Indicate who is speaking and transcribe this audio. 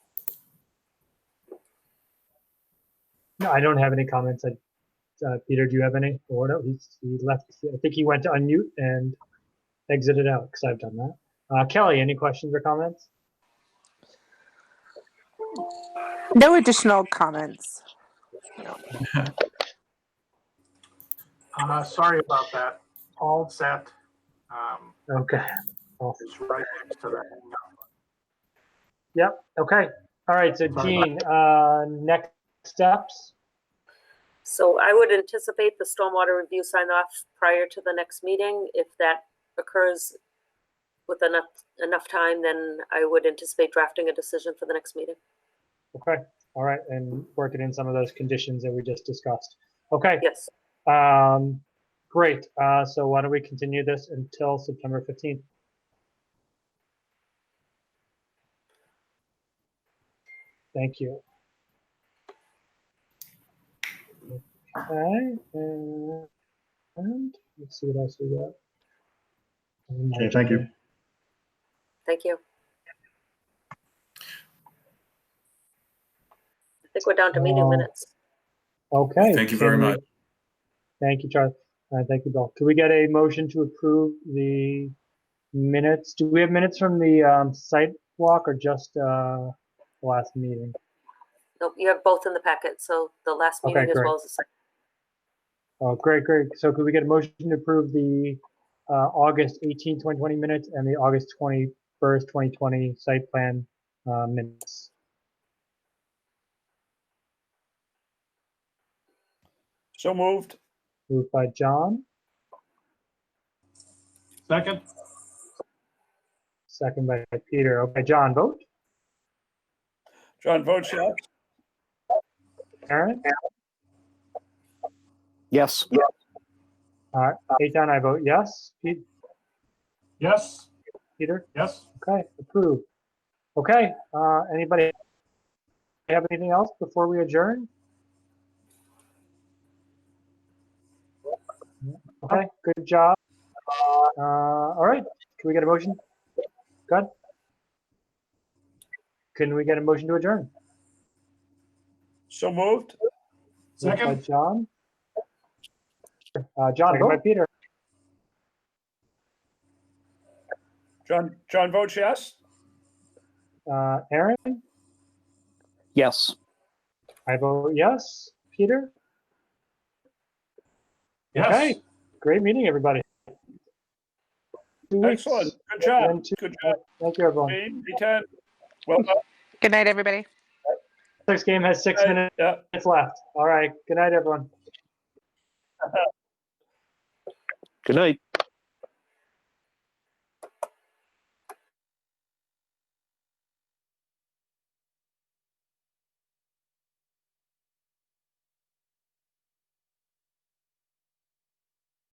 Speaker 1: No, I don't have any comments. I- Uh, Peter, do you have any? Or no, he's, he left. I think he went to unmute and exited out because I've done that. Uh, Kelly, any questions or comments?
Speaker 2: No additional comments.
Speaker 3: Uh, sorry about that. All set. Um,
Speaker 1: Okay. Well,
Speaker 3: it's right next to the hang up.
Speaker 1: Okay. All right. So Gene, uh, next steps.
Speaker 4: So I would anticipate the stormwater review sign off prior to the next meeting. If that occurs with enough, enough time, then I would anticipate drafting a decision for the next meeting.
Speaker 1: Okay. All right. And working in some of those conditions that we just discussed. Okay.
Speaker 4: Yes,
Speaker 1: Um, great. Uh, so why don't we continue this until September 15th? Thank you. Okay, and, and let's see what else we got.
Speaker 5: Okay, thank you.
Speaker 4: thank you. I think we're down to meeting
Speaker 1: Wow.
Speaker 4: minutes.
Speaker 1: Okay.
Speaker 6: Thank you very
Speaker 1: can we-
Speaker 6: much.
Speaker 1: Thank you, Charlie. Uh, thank you, Bill. Can we get a motion to approve the minutes? Do we have minutes from the um, site walk or just uh, last meeting?
Speaker 4: Nope, you have both in the packet, so the last
Speaker 1: Okay,
Speaker 4: meeting as
Speaker 1: great.
Speaker 4: well as the second.
Speaker 1: Oh, great, great. So could we get a motion to approve the uh, August 18, 2020 minutes and the August 21st, 2020 site plan uh, minutes?
Speaker 7: So moved.
Speaker 1: Moved by John,
Speaker 3: Second?
Speaker 1: second by Peter. Okay, John, vote.
Speaker 7: John votes yes.
Speaker 1: Aaron?
Speaker 8: Yes.
Speaker 1: All right, Eitan, I vote yes. Pete-
Speaker 3: Yes,
Speaker 1: Peter?
Speaker 3: yes.
Speaker 1: Okay, approved. Okay, uh, anybody have anything else before we adjourn? Okay, good job. Uh, all right, can we get a motion? Good. Can we get a motion to adjourn?
Speaker 7: So moved.
Speaker 1: Moved by
Speaker 3: Second?
Speaker 1: John? Uh, John, second by Peter.
Speaker 7: John, John votes yes.
Speaker 1: Uh, Aaron,
Speaker 8: Yes.
Speaker 1: I vote yes. Peter?
Speaker 3: Yes.
Speaker 1: Okay. Great meeting, everybody. Two weeks.
Speaker 7: Excellent. Good
Speaker 1: One,
Speaker 7: job.
Speaker 1: two.
Speaker 7: Good job,
Speaker 1: Thank you, everyone.
Speaker 7: Dean. Eitan. Well, done.
Speaker 2: Good night, everybody.
Speaker 1: Six game has six minutes
Speaker 7: yeah.
Speaker 1: left. All right. Good night, everyone.
Speaker 8: Good night.